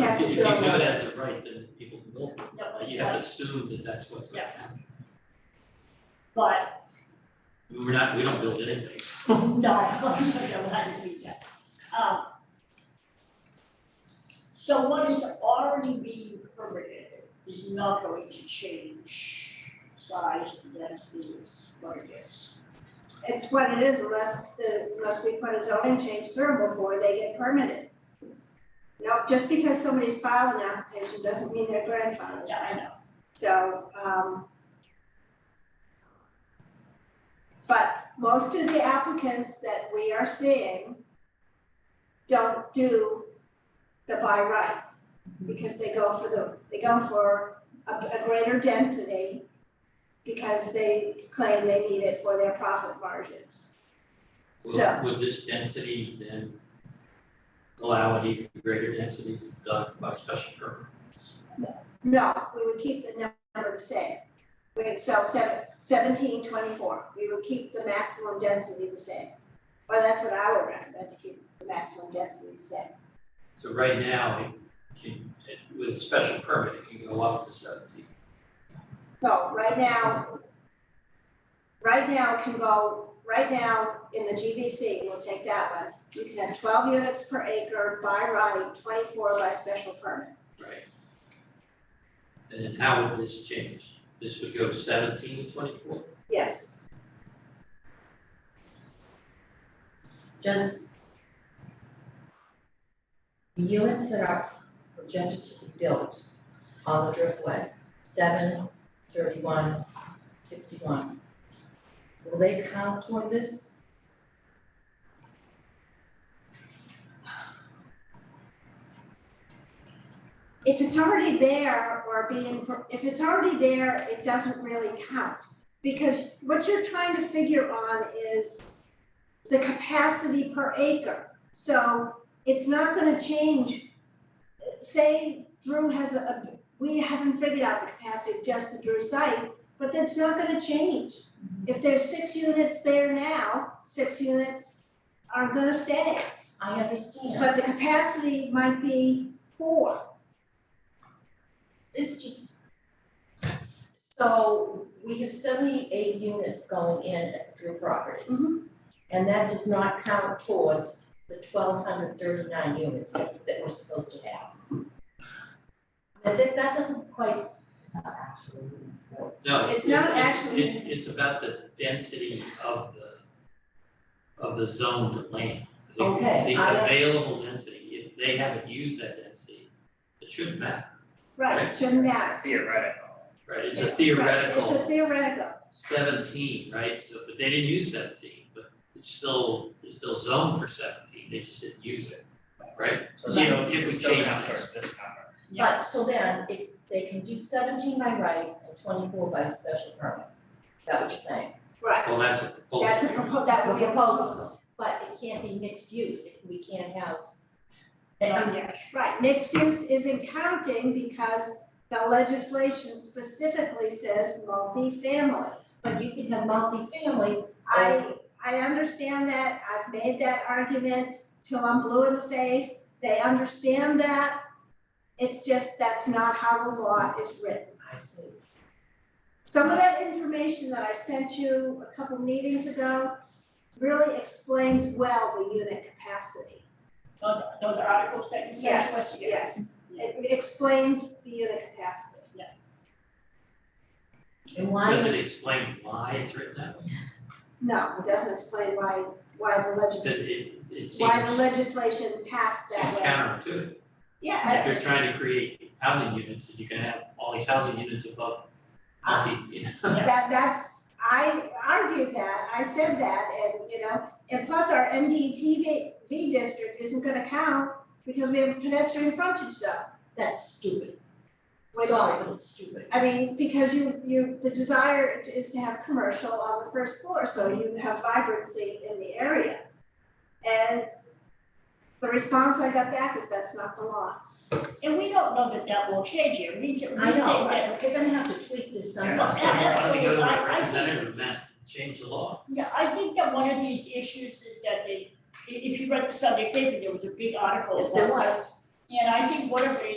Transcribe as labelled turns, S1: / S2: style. S1: if you give it as a right, then people can build it,
S2: No,
S1: Like, you have to assume that that's what's gonna happen.
S2: but uh,
S1: I mean, We're not, we don't build anything,
S2: no, I'm sorry, I'm uh, not doing that. Um, So what is already being permitted is not going to change size, density, it's what it is.
S3: It's what it is unless the, unless we put a zoning change through before they get permitted. No, just because somebody's filed an application doesn't mean they're grandfathered,
S2: Yeah, I know,
S3: so, um. But most of the applicants that we are seeing don't do the by right. Because they go for the, they go for a, a greater density because they claim they need it for their profit margins.
S1: would,
S3: So-
S1: would this density then allow an even greater density that's done by special permit?
S3: No, we would keep the number the same. We, so seven, seventeen twenty-four, we would keep the maximum density the same. Well, that's what I would recommend, to keep the maximum density the same.
S1: So right now, it can, it- with a special permit, it can go up to seventeen.
S3: No, right now, right now it can go, right now in the GVC, we'll take that one. You can have twelve units per acre by right, twenty-four by special permit.
S1: Right. And then how would this change? This would go seventeen to twenty-four?
S3: Yes,
S4: Does the units that are projected to be built on the Driftway, seven, thirty-one, sixty-one, will they count toward this?
S3: if it's already there or being, if it's already there, it doesn't really count. Because what you're trying to figure on is the capacity per acre. So it's not gonna change. Say Drew has a- a, we haven't figured out the capacity of just the Drew site, but that's not gonna change. If there's six units there now, six units are gonna stay.
S4: I understand,
S3: But the capacity might be four.
S4: this just. So we have seventy-eight units going in at the Drew property.
S3: Mhm.
S4: And that does not count towards the twelve hundred thirty-nine units that that we're supposed to have. I think that doesn't quite, it's not actually units, though.
S1: No, it's,
S3: It's not
S1: it's,
S3: actually-
S1: it's, it's about the density of the, of the zoned land. The-
S4: Okay,
S1: The
S4: I-
S1: available density, if they haven't used that density, it shouldn't matter,
S3: Right, shouldn't matter.
S5: Theoretical.
S1: right? It's a
S4: It's-
S3: It's a
S1: theoretical
S3: theoretical,
S1: seventeen, right? So, but they didn't use seventeen, but it's still, it's still zoned for seventeen, they just didn't use it, right?
S5: So
S1: You know,
S5: it's
S1: if we
S5: still
S1: change
S5: not
S1: things.
S5: for this number.
S4: But, so then, if they can do seventeen by right and twenty-four by special permit, is that what you're saying?
S3: right.
S1: Well, that's a proposal.
S3: That's a proposal, that would be a proposal.
S4: But it can't be mixed use, we can't have.
S2: not yet.
S3: Right, mixed use isn't counting because the legislation specifically says multifamily.
S4: But you can have multifamily,
S3: I, I understand that, I've made that argument till I'm blue in the face, they understand that. It's just, that's not how the law is written.
S4: I see,
S3: Some of that information that I sent you a couple meetings ago really explains well the unit capacity.
S2: Those, those articles that you sent to
S3: Yes,
S2: us, yeah.
S3: yes, it explains the unit capacity.
S4: and why,
S1: Does
S4: would-
S1: it explain why it's written that way?
S3: No, it doesn't explain why, why the
S1: Because
S3: legis,
S1: it, it seems,
S3: why the legislation passed that
S1: seems
S3: way.
S1: counterintuitive.
S3: Yeah,
S1: If you're
S3: it's,
S1: trying to create housing units, and you can have all these housing units above
S2: Ah.
S1: multi, you know.
S3: that, that's, I argued that, I said that, and, you know, and plus our MDTV V district isn't gonna count because we have a pedestrian frontage zone,
S4: that's stupid,
S3: which,
S4: sorry, but it's stupid.
S3: I mean, because you, you, the desire is to have commercial on the first floor, so you have vibrancy in the area. And the response I got back is that's not the law.
S2: And we don't know that that will change here, we just, we
S4: I
S2: think
S4: know,
S2: that
S4: but they're gonna have to tweak this
S5: Yeah,
S1: I'm
S4: somewhat.
S1: saying, why don't we go to
S2: absolutely. I-
S1: a
S2: I think-
S1: representative and ask them to change the law?
S2: Yeah, I think that one of these issues is that they, i- if you read the Sunday paper, there was a big article
S4: Yes, there
S2: about
S4: was.
S2: this. And I think one of the